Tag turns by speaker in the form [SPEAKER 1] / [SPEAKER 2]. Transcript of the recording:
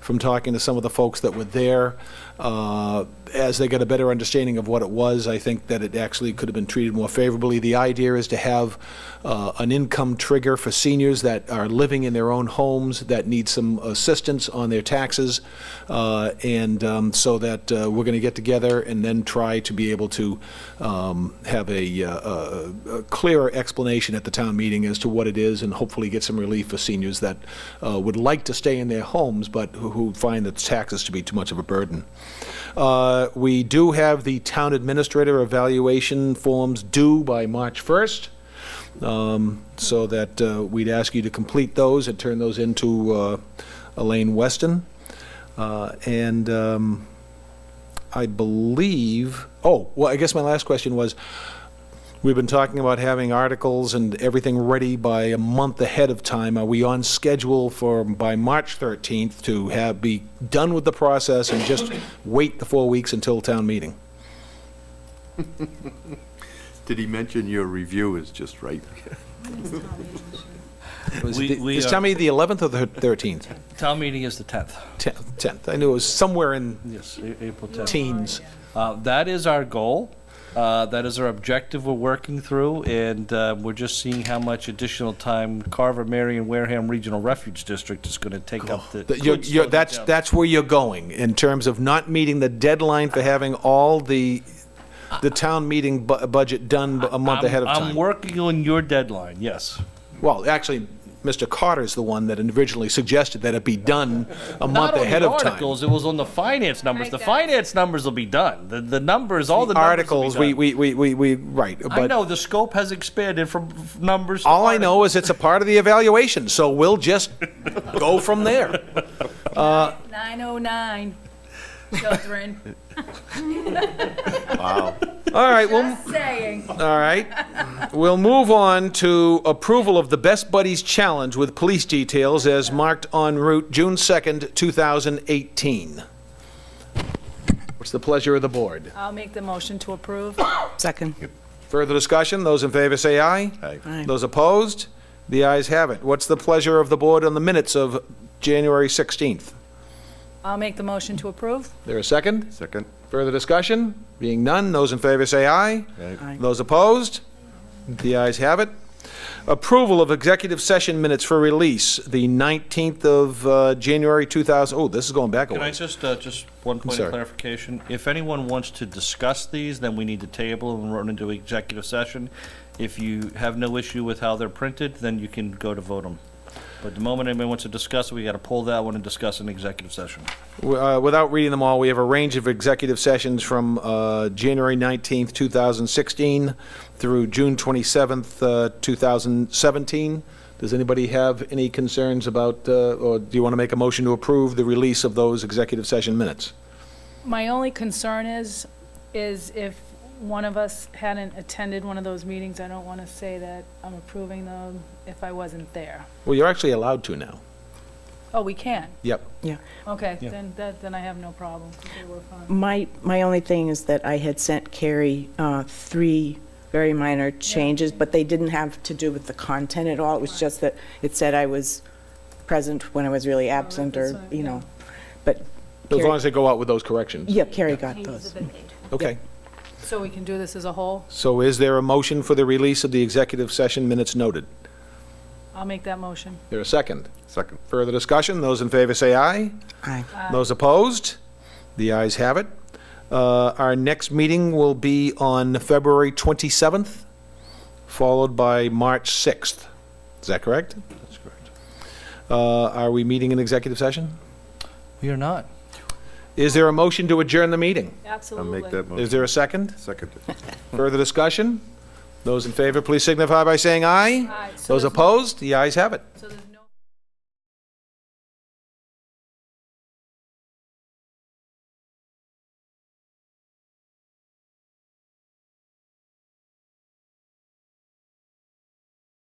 [SPEAKER 1] from talking to some of the folks that were there. Uh, As they got a better understanding of what it was, I think that it actually could have been treated more favorably. The idea is to have uh, an income trigger for seniors that are living in their own homes, that need some assistance on their taxes, uh, and um, so that uh, we're going to get together and then try to be able to um, have a, uh, a a clearer explanation at the town meeting as to what it is, and hopefully get some relief for seniors that uh, would like to stay in their homes, but who- who find the taxes to be too much of a burden. Uh, We do have the town administrator evaluation forms due by March 1st, um, so that uh, we'd ask you to complete those and turn those into uh, Elaine Weston. Uh, And um, I believe, oh, well, I guess my last question was, We've been talking about having articles and everything ready by a month ahead of time. Are we on schedule for, by March 13th, to have, be done with the process and just wait the four weeks until town meeting?
[SPEAKER 2] Did he mention your review is just right?
[SPEAKER 1] Was
[SPEAKER 3] We-
[SPEAKER 1] it-
[SPEAKER 3] we
[SPEAKER 1] Is
[SPEAKER 3] are-
[SPEAKER 1] town meeting the 11th or the 13th?
[SPEAKER 3] Town meeting is the 10th.
[SPEAKER 1] 10th, 10th. I knew it was somewhere in
[SPEAKER 3] Yes, A- April 10th.
[SPEAKER 1] teens.
[SPEAKER 3] Uh, That is our goal. Uh, That is our objective we're working through, and uh, we're just seeing how much additional time Carver, Marion, Wareham Regional Refuge District is going to take up. the-
[SPEAKER 1] That you're-
[SPEAKER 3] could
[SPEAKER 1] you're-
[SPEAKER 3] slow that
[SPEAKER 1] That's,
[SPEAKER 3] down.
[SPEAKER 1] that's where you're going, in terms of not meeting the deadline for having all the, the town meeting bu- budget done b- a month
[SPEAKER 3] I'm-
[SPEAKER 1] ahead of time.
[SPEAKER 3] I'm working on your deadline, yes.
[SPEAKER 1] Well, actually, Mr. Carter's the one that originally suggested that it be done a month ahead of
[SPEAKER 3] Not on the
[SPEAKER 1] time.
[SPEAKER 3] articles, it was on the finance numbers. The
[SPEAKER 4] Right, guys.
[SPEAKER 3] finance numbers will be done. The- The numbers, all the numbers will be
[SPEAKER 1] Articles, we,
[SPEAKER 3] done.
[SPEAKER 1] we, we, we, we- right,
[SPEAKER 3] I
[SPEAKER 1] but
[SPEAKER 3] know, the scope has expanded from f- numbers to
[SPEAKER 1] all I know
[SPEAKER 3] articles.
[SPEAKER 1] is it's a part of the evaluation, so we'll just go from there.
[SPEAKER 4] 909, children,
[SPEAKER 2] Wow.
[SPEAKER 1] All right, well,
[SPEAKER 4] just saying.
[SPEAKER 1] all right. We'll move on to approval of the Best Buddies Challenge with police details as marked en route June 2nd, 2018. What's the pleasure of the board?
[SPEAKER 4] I'll make the motion to approve.
[SPEAKER 5] Second.
[SPEAKER 1] Further discussion? Those in favor say aye.
[SPEAKER 2] Aye.
[SPEAKER 5] Aye.
[SPEAKER 1] Those opposed? The ayes have it. What's the pleasure of the board on the minutes of January 16th?
[SPEAKER 4] I'll make the motion to approve.
[SPEAKER 1] There a second?
[SPEAKER 2] Second?
[SPEAKER 1] Further discussion? Being none, those in favor say aye.
[SPEAKER 5] Aye.
[SPEAKER 1] Those opposed? The ayes have it. Approval of executive session minutes for release, the 19th of uh, January 2000, oh, this is going back a
[SPEAKER 3] Can I
[SPEAKER 1] ways.
[SPEAKER 3] just, uh, just one point
[SPEAKER 1] sorry.
[SPEAKER 3] of clarification? If anyone wants to discuss these, then we need to table and run into executive session. If you have no issue with how they're printed, then you can go to vote them. But the moment anyone wants to discuss, it, we gotta pull that one and discuss in executive session.
[SPEAKER 1] W- uh, Without reading them all, we have a range of executive sessions from uh, January 19th, 2016 through June 27th, uh, 2017. Does anybody have any concerns about, uh, or do you want to make a motion to approve the release of those executive session minutes?
[SPEAKER 4] My only concern is, is if one of us hadn't attended one of those meetings, I don't want to say that I'm approving them if I wasn't there.
[SPEAKER 1] Well, you're actually allowed to now.
[SPEAKER 4] Oh, we can?
[SPEAKER 1] Yep.
[SPEAKER 4] Okay,
[SPEAKER 3] Yeah.
[SPEAKER 4] then, that, then I have no problem. Okay, we're fine.
[SPEAKER 5] My, my only thing is that I had sent Carrie uh, three very minor changes, but they didn't have to do with the content at all. It was just that it said I was present when I was really absent,
[SPEAKER 4] that's
[SPEAKER 5] or,
[SPEAKER 4] fine,
[SPEAKER 5] you
[SPEAKER 4] yeah.
[SPEAKER 5] know, but,
[SPEAKER 1] As long
[SPEAKER 5] Carrie-
[SPEAKER 1] as they go out with those corrections.
[SPEAKER 5] yeah, Carrie got those.
[SPEAKER 1] Okay.
[SPEAKER 4] So we can do this as a whole?
[SPEAKER 1] So is there a motion for the release of the executive session minutes noted?
[SPEAKER 4] I'll make that motion.
[SPEAKER 1] There a second?
[SPEAKER 2] Second.
[SPEAKER 1] Further discussion? Those in favor say aye.
[SPEAKER 5] Aye.
[SPEAKER 1] Those opposed? The ayes have it. Uh, Our next meeting will be on February 27th, followed by March 6th. Is that correct?
[SPEAKER 3] That's correct.
[SPEAKER 1] Uh, Are we meeting in executive session?
[SPEAKER 3] We are not.
[SPEAKER 1] Is there a motion to adjourn the meeting?
[SPEAKER 2] I'll
[SPEAKER 4] Absolutely.
[SPEAKER 2] make that
[SPEAKER 1] Is
[SPEAKER 2] motion.
[SPEAKER 1] there a second?
[SPEAKER 2] Second.
[SPEAKER 1] Further discussion? Those in favor, please signify by saying aye.
[SPEAKER 4] Aye, so
[SPEAKER 1] Those
[SPEAKER 4] there's-
[SPEAKER 1] opposed? The ayes have it.
[SPEAKER 4] So there's